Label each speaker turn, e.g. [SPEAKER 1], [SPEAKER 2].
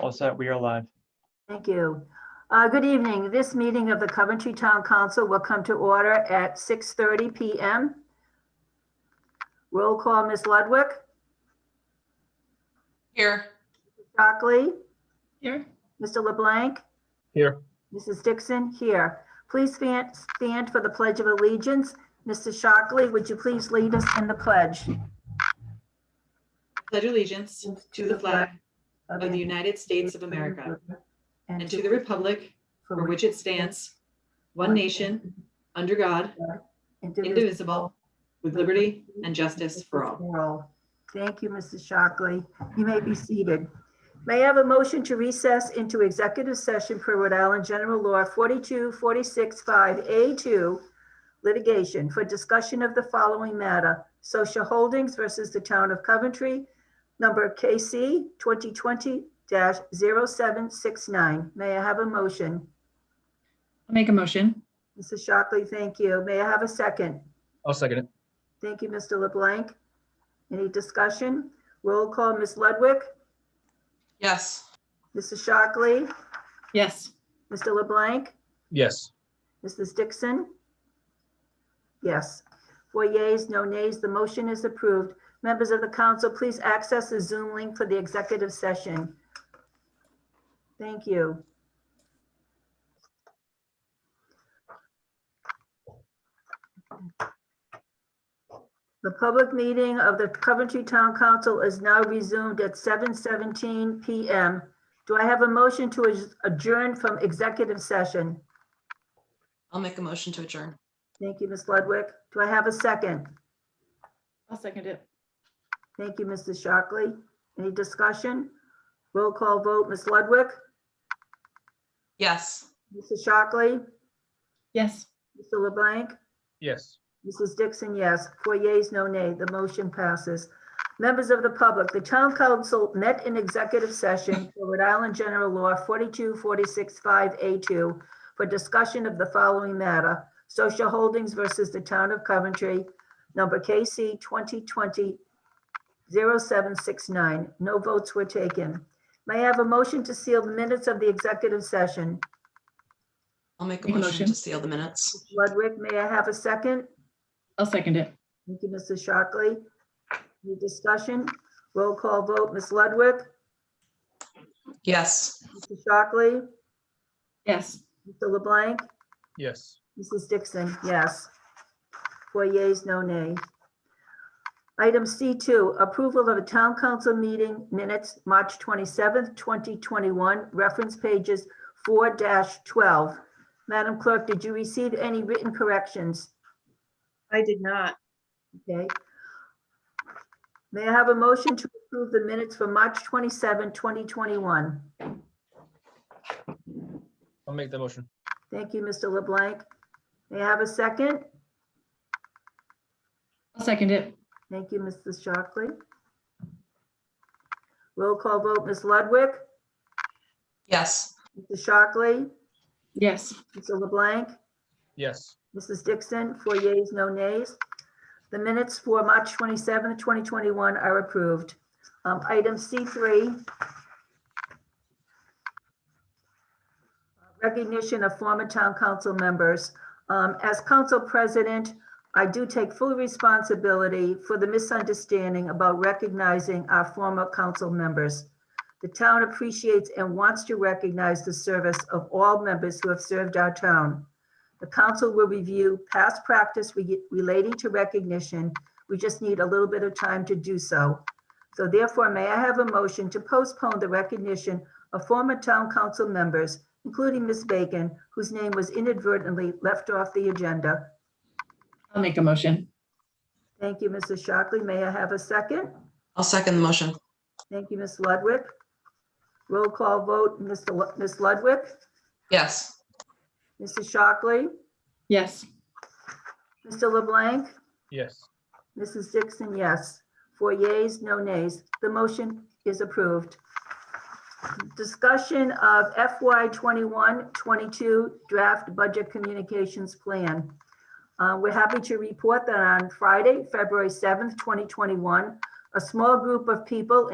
[SPEAKER 1] All set, we are live.
[SPEAKER 2] Thank you. Uh, Good evening. This meeting of the Coventry Town Council will come to order at 6:30 PM. Roll call, Ms. Ludwig,
[SPEAKER 3] Here.
[SPEAKER 2] Shockley,
[SPEAKER 3] Here.
[SPEAKER 2] Mr. LeBlanc.
[SPEAKER 1] Here.
[SPEAKER 2] Mrs. Dixon, here. Please fan- stand for the Pledge of Allegiance. Mr. Shockley, would you please lead us in the pledge?
[SPEAKER 4] pledge allegiance to the flag of the United States of America and to the republic for which it stands, one nation, under God, indivisible, with liberty and justice for all.
[SPEAKER 2] Thank you, Mrs. Shockley. You may be seated. May I have a motion to recess into executive session per Rhode Island General Law 42465A2 litigation for discussion of the following matter, Social Holdings versus the Town of Coventry, number KC 2020-0769. May I have a motion?
[SPEAKER 3] I'll make a motion.
[SPEAKER 2] Mrs. Shockley, thank you. May I have a second?
[SPEAKER 5] I'll second it.
[SPEAKER 2] Thank you, Mr. LeBlanc. Any discussion? Roll call, Ms. Ludwig,
[SPEAKER 3] Yes.
[SPEAKER 2] Mrs. Shockley,
[SPEAKER 3] Yes.
[SPEAKER 2] Mr. LeBlanc,
[SPEAKER 5] Yes.
[SPEAKER 2] Mrs. Dixon? Yes. Four yeas, no nays, the motion is approved. Members of the council, please access the Zoom link for the executive session. Thank you. The public meeting of the Coventry Town Council is now resumed at 7:17 PM. Do I have a motion to adjourn from executive session?
[SPEAKER 3] I'll make a motion to adjourn.
[SPEAKER 2] Thank you, Ms. Ludwig. Do I have a second?
[SPEAKER 3] I'll second it.
[SPEAKER 2] Thank you, Mrs. Shockley. Any discussion? Roll call vote, Ms. Ludwig,
[SPEAKER 3] Yes.
[SPEAKER 2] Mrs. Shockley,
[SPEAKER 3] Yes.
[SPEAKER 2] Mr. LeBlanc,
[SPEAKER 5] Yes.
[SPEAKER 2] Mrs. Dixon, yes. Four yeas, no nay. The motion passes. Members of the public, the town council met in executive session for Rhode Island General Law 42465A2 for discussion of the following matter, Social Holdings versus the Town of Coventry, number KC 2020-0769. No votes were taken. May I have a motion to seal the minutes of the executive session?
[SPEAKER 3] I'll make a motion to seal the minutes.
[SPEAKER 2] Ludwig, may I have a second?
[SPEAKER 6] I'll second it.
[SPEAKER 2] Thank you, Mrs. Shockley. Any discussion? Roll call vote, Ms. Ludwig,
[SPEAKER 3] Yes.
[SPEAKER 2] Mr. Shockley,
[SPEAKER 6] Yes.
[SPEAKER 2] Mr. LeBlanc,
[SPEAKER 5] Yes.
[SPEAKER 2] Mrs. Dixon, yes. Four yeas, no nays. Item C2, approval of a town council meeting minutes, March 27th, 2021, reference pages 4-12. Madam Clerk, did you receive any written corrections?
[SPEAKER 7] I did not.
[SPEAKER 2] Okay. May I have a motion to approve the minutes for March 27, 2021?
[SPEAKER 5] I'll make the motion.
[SPEAKER 2] Thank you, Mr. LeBlanc. May I have a second?
[SPEAKER 6] I'll second it.
[SPEAKER 2] Thank you, Mrs. Shockley. Roll call vote, Ms. Ludwig,
[SPEAKER 3] Yes.
[SPEAKER 2] Mr. Shockley,
[SPEAKER 6] Yes.
[SPEAKER 2] Mr. LeBlanc,
[SPEAKER 5] Yes.
[SPEAKER 2] Mrs. Dixon, four yeas, no nays. The minutes for March 27, 2021 are approved. Um, Item C3. Recognition of former town council members. Um, As council president, I do take full responsibility for the misunderstanding about recognizing our former council members. The town appreciates and wants to recognize the service of all members who have served our town. The council will review past practice re- relating to recognition. We just need a little bit of time to do so. So therefore, may I have a motion to postpone the recognition of former town council members, including Ms. Bacon, whose name was inadvertently left off the agenda?
[SPEAKER 6] I'll make a motion.
[SPEAKER 2] Thank you, Mrs. Shockley. May I have a second?
[SPEAKER 3] I'll second the motion.
[SPEAKER 2] Thank you, Ms. Ludwig. Roll call vote, Mr. Lu- Ms. Ludwig,
[SPEAKER 3] Yes.
[SPEAKER 2] Mrs. Shockley,
[SPEAKER 6] Yes.
[SPEAKER 2] Mr. LeBlanc,
[SPEAKER 5] Yes.
[SPEAKER 2] Mrs. Dixon, yes. Four yeas, no nays. The motion is approved. Discussion of FY 21-22 Draft Budget Communications Plan. Uh, We're happy to report that on Friday, February 7th, 2021, a small group of people